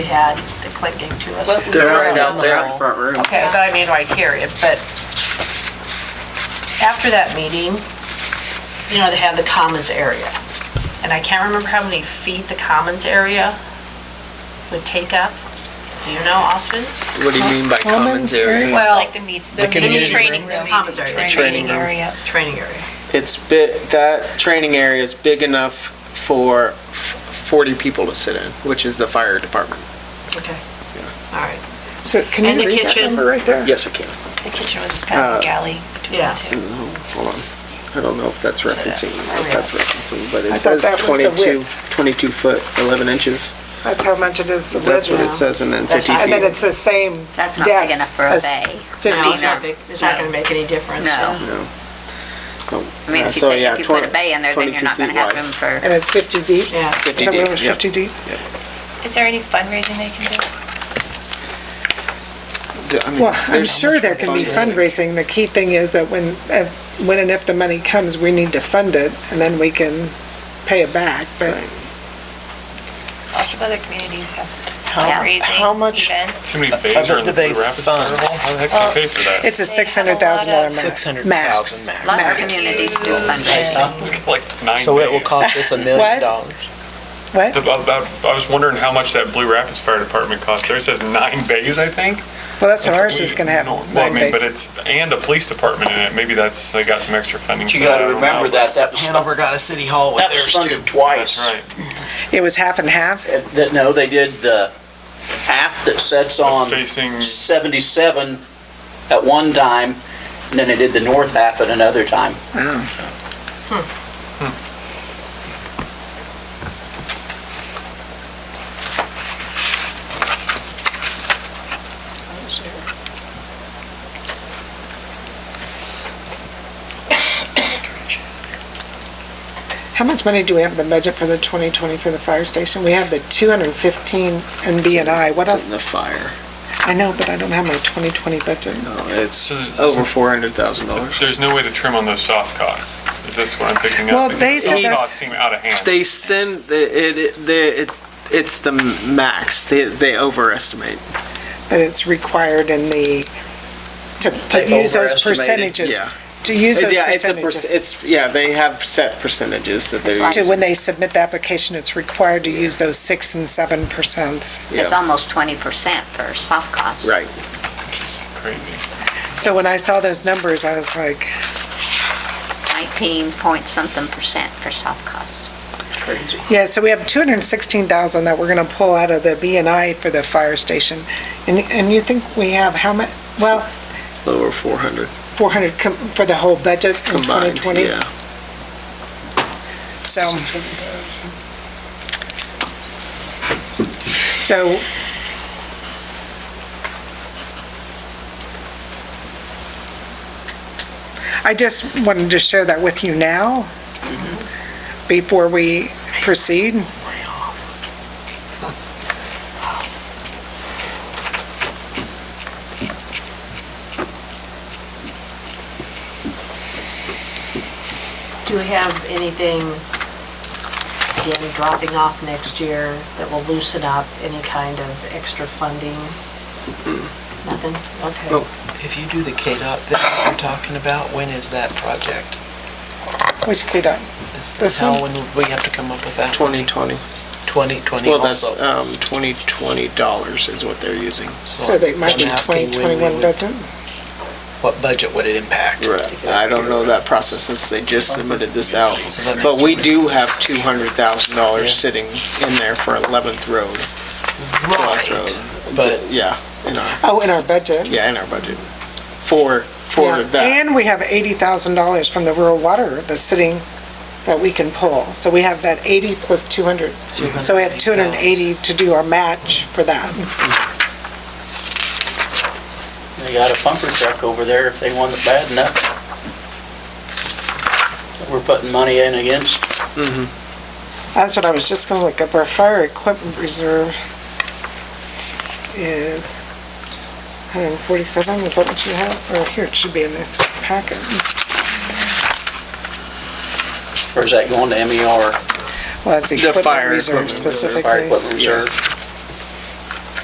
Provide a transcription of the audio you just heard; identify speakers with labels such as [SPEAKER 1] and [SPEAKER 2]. [SPEAKER 1] we had the clicking to us.
[SPEAKER 2] Well,
[SPEAKER 3] They're
[SPEAKER 2] We're
[SPEAKER 3] right
[SPEAKER 2] down
[SPEAKER 3] out
[SPEAKER 2] the
[SPEAKER 3] there in
[SPEAKER 2] hall.
[SPEAKER 3] the front room.
[SPEAKER 2] Okay, but I mean right here, if- but
[SPEAKER 1] After that meeting, you know, they had the commons area. And I can't remember how many feet the commons area would take up. Do you know, Austin?
[SPEAKER 3] What do you mean by commons area?
[SPEAKER 1] Well,
[SPEAKER 4] Like the meet,
[SPEAKER 5] The
[SPEAKER 4] the
[SPEAKER 5] community
[SPEAKER 4] mini training,
[SPEAKER 5] room.
[SPEAKER 4] the
[SPEAKER 1] Commons area.
[SPEAKER 4] mini
[SPEAKER 3] Training
[SPEAKER 4] training
[SPEAKER 3] room.
[SPEAKER 4] area.
[SPEAKER 1] training area.
[SPEAKER 3] It's big, that training area is big enough for f- 40 people to sit in, which is the fire department.
[SPEAKER 1] Okay. All right.
[SPEAKER 5] So can
[SPEAKER 1] And the
[SPEAKER 5] you read that
[SPEAKER 1] kitchen.
[SPEAKER 5] number right there?
[SPEAKER 3] Yes, it can.
[SPEAKER 4] The kitchen was just kind
[SPEAKER 3] Uh,
[SPEAKER 4] of a galley between
[SPEAKER 1] yeah.
[SPEAKER 4] the two.
[SPEAKER 3] Hold on. I don't know if that's referencing, if that's referencing, but
[SPEAKER 5] I
[SPEAKER 3] it
[SPEAKER 5] thought
[SPEAKER 3] says
[SPEAKER 5] that was the
[SPEAKER 3] 22,
[SPEAKER 5] width.
[SPEAKER 3] 22 foot, 11 inches.
[SPEAKER 5] That's how much it is, the
[SPEAKER 3] That's what it
[SPEAKER 5] width.
[SPEAKER 3] says, and then 50
[SPEAKER 1] not-
[SPEAKER 5] And then
[SPEAKER 3] feet.
[SPEAKER 5] it's the same depth.
[SPEAKER 6] That's not big enough for a
[SPEAKER 5] as
[SPEAKER 6] bay.
[SPEAKER 5] 50.
[SPEAKER 1] No, it's not big, it's not gonna make any difference.
[SPEAKER 6] No.
[SPEAKER 3] No.
[SPEAKER 6] uh, I
[SPEAKER 3] Yeah,
[SPEAKER 6] mean, if you
[SPEAKER 3] Oh, uh, so
[SPEAKER 6] put,
[SPEAKER 3] yeah,
[SPEAKER 6] if you put a
[SPEAKER 3] 20
[SPEAKER 6] bay in there, then you're
[SPEAKER 3] 22
[SPEAKER 6] not gonna
[SPEAKER 3] feet
[SPEAKER 6] have
[SPEAKER 3] wide.
[SPEAKER 6] room for,
[SPEAKER 5] And it's 50 deep?
[SPEAKER 1] Yeah.
[SPEAKER 5] Is that
[SPEAKER 3] 50
[SPEAKER 5] room
[SPEAKER 3] deep,
[SPEAKER 5] is
[SPEAKER 3] yeah.
[SPEAKER 5] 50 deep?
[SPEAKER 4] Is there any fundraising they can do?
[SPEAKER 3] I mean,
[SPEAKER 5] Well, I'm
[SPEAKER 3] there's-
[SPEAKER 5] sure there can be fundraising. The key thing is that when, if- when and if the money comes, we need to fund it, and then we can pay it back, but
[SPEAKER 4] Lots of other communities have
[SPEAKER 5] how, how
[SPEAKER 4] fundraising
[SPEAKER 5] much?
[SPEAKER 4] events.
[SPEAKER 7] How many bays are in the Blue Rapids Carnival? How the heck
[SPEAKER 5] Uh,
[SPEAKER 7] do they pay for that?
[SPEAKER 5] It's a $600,000 max.
[SPEAKER 8] Six hundred
[SPEAKER 5] Max.
[SPEAKER 8] thousand max.
[SPEAKER 6] a lot of
[SPEAKER 5] Max.
[SPEAKER 6] communities do
[SPEAKER 4] Max.
[SPEAKER 6] fundraising.
[SPEAKER 7] It's got like nine
[SPEAKER 8] So it will
[SPEAKER 7] bays.
[SPEAKER 8] cost us a
[SPEAKER 5] What?
[SPEAKER 8] million dollars.
[SPEAKER 5] What?
[SPEAKER 7] About- about- I was wondering how much that Blue Rapids Fire Department costs. There it says nine bays, I think.
[SPEAKER 5] Well, that's what
[SPEAKER 7] That's
[SPEAKER 5] ours
[SPEAKER 7] like-
[SPEAKER 5] is gonna have.
[SPEAKER 7] Well, I
[SPEAKER 5] nine
[SPEAKER 7] mean, but
[SPEAKER 5] bays.
[SPEAKER 7] it's, and a police department in it. Maybe that's, they got some extra funding.
[SPEAKER 9] But you
[SPEAKER 7] for that,
[SPEAKER 9] gotta
[SPEAKER 7] I don't
[SPEAKER 9] remember
[SPEAKER 7] know.
[SPEAKER 9] that, that was,
[SPEAKER 8] Hanover got a city hall with
[SPEAKER 9] that was
[SPEAKER 8] theirs too.
[SPEAKER 9] funded twice.
[SPEAKER 7] That's right.
[SPEAKER 5] It was half and half?
[SPEAKER 9] It- that- no, they did the half that sets on
[SPEAKER 7] Facing,
[SPEAKER 9] seventy-seven at one time, and then they did the north half at another time.
[SPEAKER 5] Oh, how much money do we have in the budget for the 2020 for the fire station? We have the 215 and B and I. What
[SPEAKER 3] It's
[SPEAKER 5] else?
[SPEAKER 3] in the fire.
[SPEAKER 5] I know, but I don't have my 2020 budget.
[SPEAKER 3] No, It's
[SPEAKER 7] So there's-
[SPEAKER 3] over $400,000.
[SPEAKER 7] there's no way to trim on those soft costs. Is this what I'm picking up?
[SPEAKER 5] Well,
[SPEAKER 7] Because
[SPEAKER 5] they
[SPEAKER 7] the
[SPEAKER 5] said
[SPEAKER 7] Soft
[SPEAKER 5] that's-
[SPEAKER 7] costs seem out of hand.
[SPEAKER 3] They send the it, it the it, it's the max. They they overestimate.
[SPEAKER 5] but it's required in the, to put-
[SPEAKER 3] They
[SPEAKER 5] use those
[SPEAKER 3] overestimated,
[SPEAKER 5] percentages.
[SPEAKER 3] yeah.
[SPEAKER 5] To use those
[SPEAKER 3] yeah, it's a perc-
[SPEAKER 5] percentages.
[SPEAKER 3] it's yeah. They have set percentages that they.
[SPEAKER 5] To when they submit the application, it's required to use those six and seven percent.
[SPEAKER 6] It's almost twenty percent for soft costs.
[SPEAKER 3] Right.
[SPEAKER 7] Crazy.
[SPEAKER 5] So when I saw those numbers, I was like,
[SPEAKER 6] Nineteen point something percent for soft costs.
[SPEAKER 9] Crazy.
[SPEAKER 5] yeah, so we have two hundred and sixteen thousand that we're gonna pull out of the B and I for the fire station. And, and you think we have how much, well,
[SPEAKER 3] Lower four hundred
[SPEAKER 5] four hundred for the whole budget in twenty
[SPEAKER 3] combined.
[SPEAKER 5] twenty?
[SPEAKER 3] Yeah.
[SPEAKER 5] So. So. I just wanted to share that with you now,
[SPEAKER 3] Mm-hmm.
[SPEAKER 5] before we proceed.
[SPEAKER 1] Do we have anything, again, dropping off next year that will loosen up any kind of extra funding? Nothing? Okay.
[SPEAKER 8] If you do the KDOT thing that you're talking about, when is that project?
[SPEAKER 5] Which could, uh,
[SPEAKER 8] Is-
[SPEAKER 5] This
[SPEAKER 8] How,
[SPEAKER 5] one?
[SPEAKER 8] when would we have to come up with that?
[SPEAKER 3] Twenty twenty.
[SPEAKER 8] Twenty, twenty
[SPEAKER 3] Well, that's
[SPEAKER 8] also.
[SPEAKER 3] um twenty twenty dollars is what they're using.
[SPEAKER 5] so they might
[SPEAKER 8] I'm
[SPEAKER 5] be
[SPEAKER 8] asking
[SPEAKER 5] twenty
[SPEAKER 8] when we
[SPEAKER 5] twenty-one
[SPEAKER 8] would-
[SPEAKER 5] budget?
[SPEAKER 8] What budget would it impact?
[SPEAKER 3] Right. I don't know that process since they just submitted this out,
[SPEAKER 8] So that
[SPEAKER 3] but
[SPEAKER 8] makes
[SPEAKER 3] we
[SPEAKER 8] it-
[SPEAKER 3] do have two hundred thousand dollars
[SPEAKER 8] Yeah.
[SPEAKER 3] sitting in there for Eleventh Road. 12th
[SPEAKER 8] Right,
[SPEAKER 3] Road.
[SPEAKER 8] but
[SPEAKER 3] Yeah. In our
[SPEAKER 5] Oh, in our budget?
[SPEAKER 3] yeah in our budget for for
[SPEAKER 5] Yeah,
[SPEAKER 3] that.
[SPEAKER 5] And we have eighty thousand dollars from the rural water that's sitting, that we can pull. So we have that eighty plus two hundred. So we have two hundred and eighty to do our match for that.
[SPEAKER 9] They got a pumper truck over there if they want it bad enough. That We're putting money in against.
[SPEAKER 5] That's what I was just gonna look up. Our fire equipment reserve is hundred and forty-seven, is that what you have? Or here, it should be in this packet.
[SPEAKER 9] Or is that going to MER,
[SPEAKER 5] Well, it's
[SPEAKER 3] The
[SPEAKER 5] equipment
[SPEAKER 3] fire
[SPEAKER 5] reserve
[SPEAKER 9] E
[SPEAKER 3] equipment reserve.
[SPEAKER 9] fire
[SPEAKER 5] specifically.
[SPEAKER 9] equipment reserve?